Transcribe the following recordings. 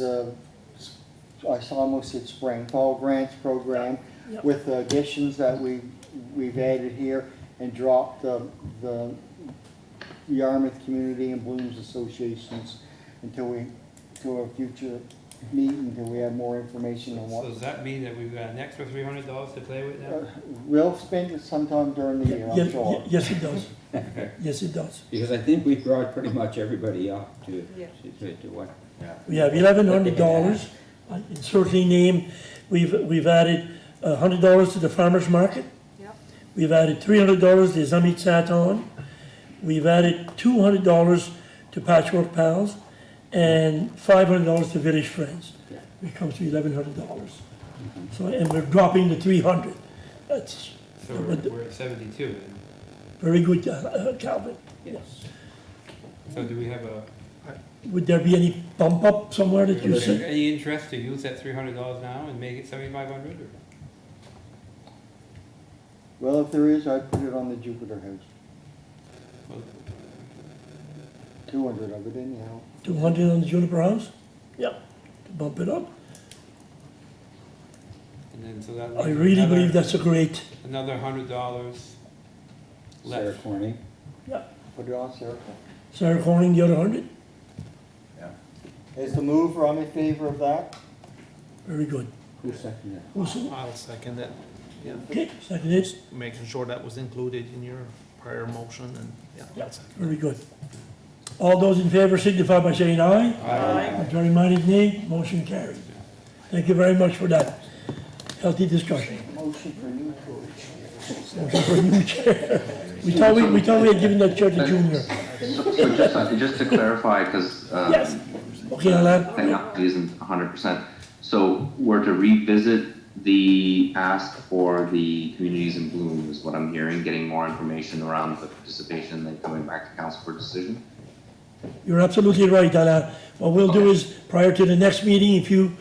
the, I uh, s- almost said spring, fall grants program Yep. with the additions that we, we've added here and dropped the, the Yarmouth Community and Blooms Associations until we, to a future meeting, until we have more information on So what. does that mean that we've got an extra three hundred dollars to play with Uh, now? We'll spend it sometime during the year, Ye- I'm ye- sure. Yes, it does. Yes, it does. Because I think we brought pretty much everybody up to, to to what. We have eleven hundred dollars, insert any name, we've, we've added a hundred dollars to the farmer's market. Yep. We've added three hundred dollars to Zamit Saton. We've added two hundred dollars to Patchwork Pals and five hundred dollars to Village Friends. It comes to eleven hundred dollars. So, and we're dropping the three hundred. That's So we're, we're at seventy-two then. very good, uh, uh, Calvin. Yes. So do we have a, Would there be any bump up somewhere that you see? any interest to use that three hundred dollars now and make it seventy-five hundred or? Well, if there is, I'd put it on the Jupiter House, well, two hundred of it anyhow. Two hundred on the juniper house? Yep. To bump it up? And then so that. I leaves really another- believe that's a great, Another hundred dollars Sarah left. Corning. Put it on Sarah. Sarah Corning, the other hundred, Is the mover, I'm in favor of that? very good. Who seconded Who's, I'll second that, yeah, okay, second is, making sure that was included in your prior motion and, yeah. that's it. very good. All those in favor signify by saying aye. Aye. Contrary minded nay, motion carried. Thank you very much for that healthy discussion. Motion for new Motion for new chair. We thought we, we thought we had given that chair to Junior. So just, uh, just to clarify, because, um, Yes. Okay, Alan, thing up isn't hundred percent. So we're to revisit the ask for the communities in bloom is what I'm hearing, getting more information around the participation, then coming back to council for decision? you're absolutely right, Alan. What we'll do is, prior to the next meeting, if you,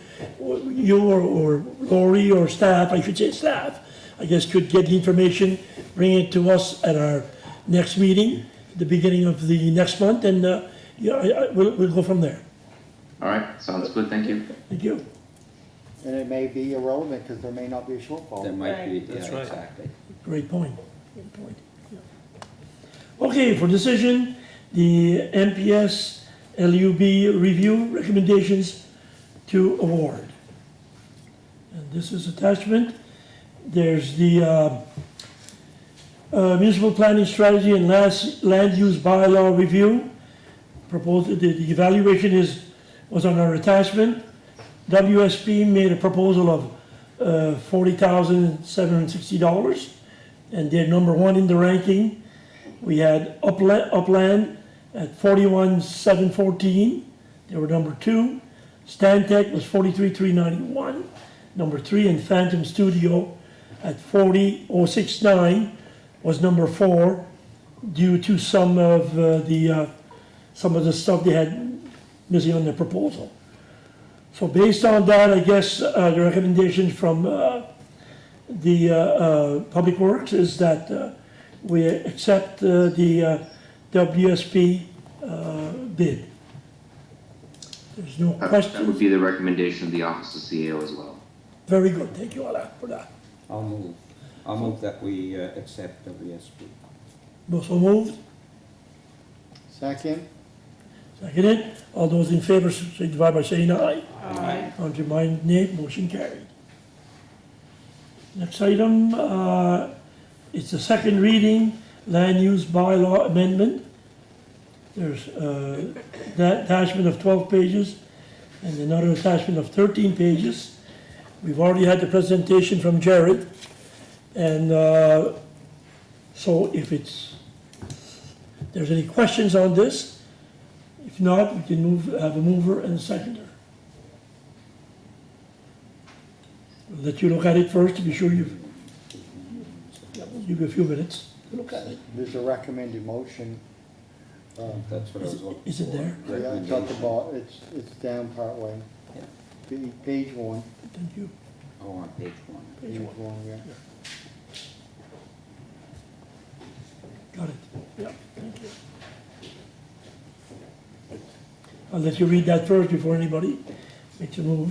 you or- or Lori or staff, I should say staff, I guess could get the information, bring it to us at our next meeting, the beginning of the next month, and, uh, yeah, I, I, we'll, we'll go from there. All right, sounds good, thank you. Thank you. And it may be irrelevant, because there may not be a it? That shortfall. might be, yeah, That's right. exactly. Great point, great point. yeah. Okay, for decision, the MPS LUB review recommendations to award. And this is attachment, there's the uh, uh, municipal planning strategy and last land use bylaw review. Proposed, the the evaluation is, was on our attachment. WSP made a proposal of uh, $40,760, and they're number one in the ranking. We had Upland, Upland at 41,714, they were number two. Stantec was 43,391, number three, and Phantom Studio at 40,069 was number four due to some of uh, the, uh, some of the stuff they had missing on their proposal. So based on that, I guess, uh, the recommendation from, uh, the, uh, uh, Public Works is that, uh, we accept, uh, the, uh, WSP, uh, bid. There's no That that would question. be the recommendation of the Office of CAO as well. Very good, thank you, Alan, for that. I'll move, I'll move that we uh, accept WSP. Also moved, Second, seconded. All those in favor signify by saying aye. Aye. Contrary minded, nay. Motion carried. Next item, uh, it's the second reading, land use bylaw amendment. There's uh, that attachment of 12 pages and another attachment of 13 pages. We've already had the presentation from Jared. And uh, so if it's, there's any questions on this? If not, we can move, have a mover and a seconder. I'll Let you look at it first to be sure you've, yeah, we'll give you a few minutes to look at it. there's a recommended motion. Um, That's what I was looking for. Is it there? Yeah, it's at the Recommendation. bo- it's, it's down partway. Yeah. Pa- Page one. Thank you. Oh, on page one. Page one, yeah. Got it. Yeah, thank you. I'll let you read that first before anybody Make the move.